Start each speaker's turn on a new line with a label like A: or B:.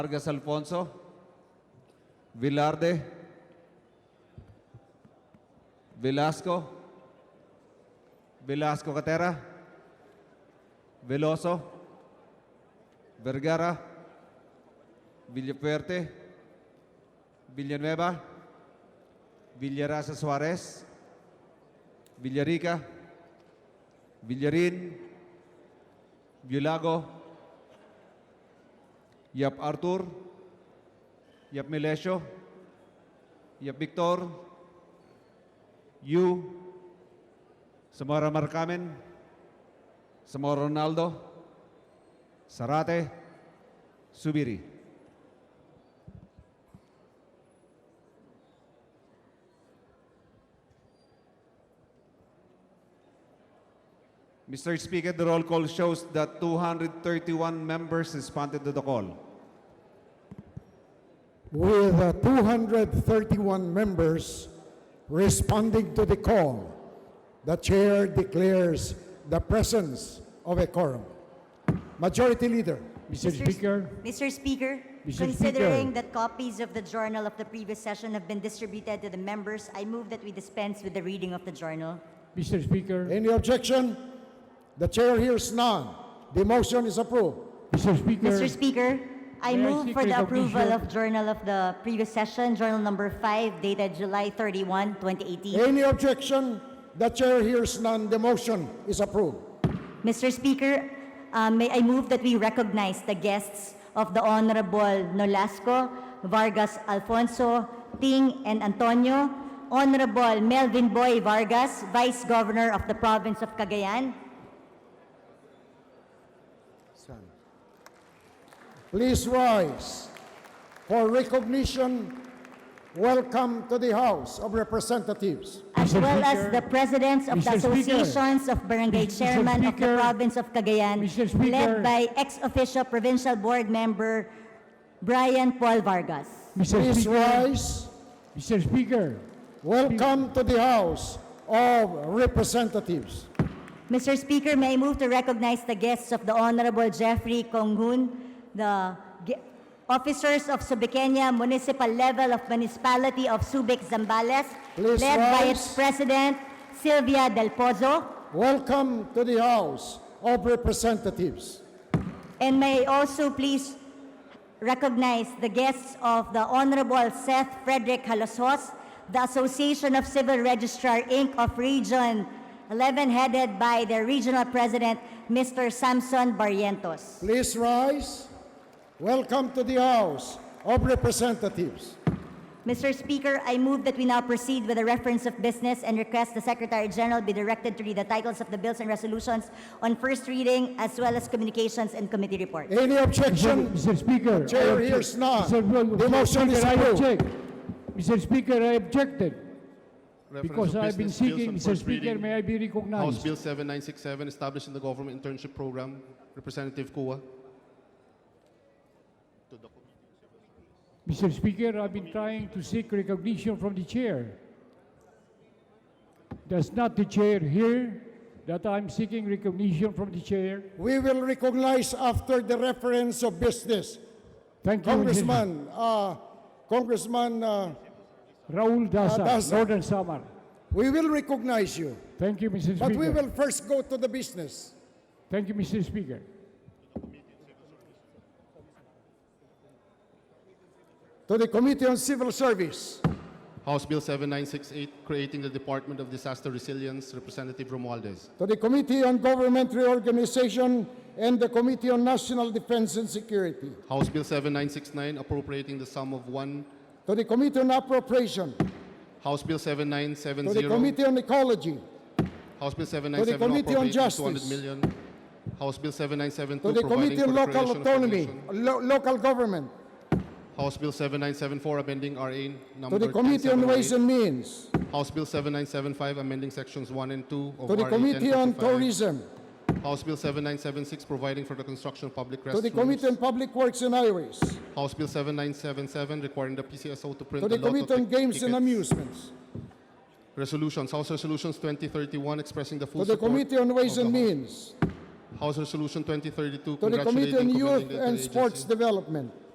A: Vargas Alfonso. Velarde. Velasco. Velasco Catera. Veloso. Vergara. Villapuerte. Villanueva. Villarasa Suarez. Villarica. Villarin. Villago. Yap Arthur, Yap Melesio, Yap Victor, Yu, Samora Marcamen, Samora Ronaldo, Sarate, Subiri. Mr. Speaker, the roll call shows that 231 members responded to the call.
B: with uh, 231 members responding to the call, the chair declares the presence of a quorum. Majority Leader,
C: Mr.
D: S-
C: Speaker,
D: Mr. Speaker,
C: Mr. Speaker.
D: considering that copies of the journal of the previous session have been distributed to the members, I move that we dispense with the reading of the journal.
C: Mr. Speaker,
B: any objection? The chair hears none. The motion is approved.
C: Mr. Speaker.
D: Mr. Speaker, I
C: May I
D: move
C: seek
D: for the
C: recognition?
D: approval of journal of the previous session, journal number 5 dated July 31, 2018.
B: Any objection? The chair hears none. The motion is approved.
D: Mr. Speaker, uh, may I move that we recognize the guests of the Honorable Nolasco, Vargas Alfonso, Ting, and Antonio, Honorable Melvin Boy Vargas, Vice Governor of the Province of Cagayan,
B: Please rise for recognition. Welcome to the House of Representatives.
D: as
C: Mr.
D: well as
C: Speaker.
D: the presidents of the
C: Mr. Speaker.
D: associations of barangay
C: Mr.
D: chairman of the
C: Speaker.
D: province of Cagayan,
C: Mr.
D: led
C: Speaker.
D: by ex-official provincial board member Brian Paul Vargas.
C: Mr.
B: Please
C: Speaker,
B: rise.
C: Mr. Speaker,
B: Welcome to the House of Representatives.
D: Mr. Speaker, may I move to recognize the guests of the Honorable Jeffrey Konghun, the ge- officers of Subiqueña Municipal Level of Municipality of Subic, Zambales,
B: Please
D: led by
B: rise.
D: its president Silvia Del Pozo,
B: Welcome to the House of Representatives.
D: And may I also please recognize the guests of the Honorable Seth Frederick Halosos, the Association of Civil Registrar, Inc. of Region 11, headed by their regional president, Mr. Samson Barrientos.
B: Please rise. Welcome to the House of Representatives.
D: Mr. Speaker, I move that we now proceed with the reference of business and request the Secretary General be directed to read the titles of the bills and resolutions on first reading as well as communications and committee reports.
B: Any objection?
C: Mr. Speaker.
B: Chair
C: I object-
B: hears none.
C: Mr. Speaker,
B: The motion is
C: I
B: approved.
C: object. Mr. Speaker, I objected because I've been seeking, Mr.
E: Mr.
C: Speaker, may I be recognized?
E: House Bill 7967, establishing the government internship program, Representative Kua.
C: Mr. Speaker, I've been trying to seek recognition from the chair. Does not the chair hear that I'm seeking recognition from the chair?
B: We will recognize after the reference of business.
C: Thank you.
B: Congressman, uh, Congressman, uh,
C: Raul Dasa,
B: Ah, Dasa.
C: Northern Samar.
B: we will recognize you,
C: Thank you, Mr. Speaker.
B: but we will first go to the business.
C: Thank you, Mr. Speaker.
B: To the Committee on Civil Service.
E: House Bill 7968, creating the Department of Disaster Resilience, Representative Romualdez.
B: to the Committee on Government Reorganization and the Committee on National Defense and Security,
E: House Bill 7969, appropriating the sum of one.
B: to the Committee on Appropriation,
E: House Bill
B: to the
E: 7970.
B: Committee on Ecology,
E: House Bill
B: To the
E: 797
B: Committee on
E: appropriating 200
B: Justice.
E: million. House Bill
B: to
E: 7972
B: the
E: providing
B: Committee
E: for
B: on
E: the
B: Local
E: creation of a
B: Autonomy,
E: nation.
B: lo- Local Government,
E: House Bill 7974 amending RA
B: to
E: number
B: the Committee on
E: 1078.
B: Ways and Means,
E: House Bill 7975 amending sections 1 and 2 of
B: to the
E: RA
B: Committee on
E: 1055.
B: Tourism,
E: House Bill 7976 providing for the construction of public
B: to
E: restrooms.
B: the Committee on Public Works and Highways,
E: House Bill 7977 requiring the PCSO to print
B: to the
E: the
B: Committee on Games and
E: Amuse.
B: Amusements,
E: Resolutions, House Resolutions 2031 expressing the full
B: to the
E: support
B: Committee on Ways
E: of
B: and
E: the House.
B: Means,
E: House Resolution 2032
B: to the Committee on
E: congratulating,
B: Youth
E: commending the
B: and Sports
E: interagency.
B: Development,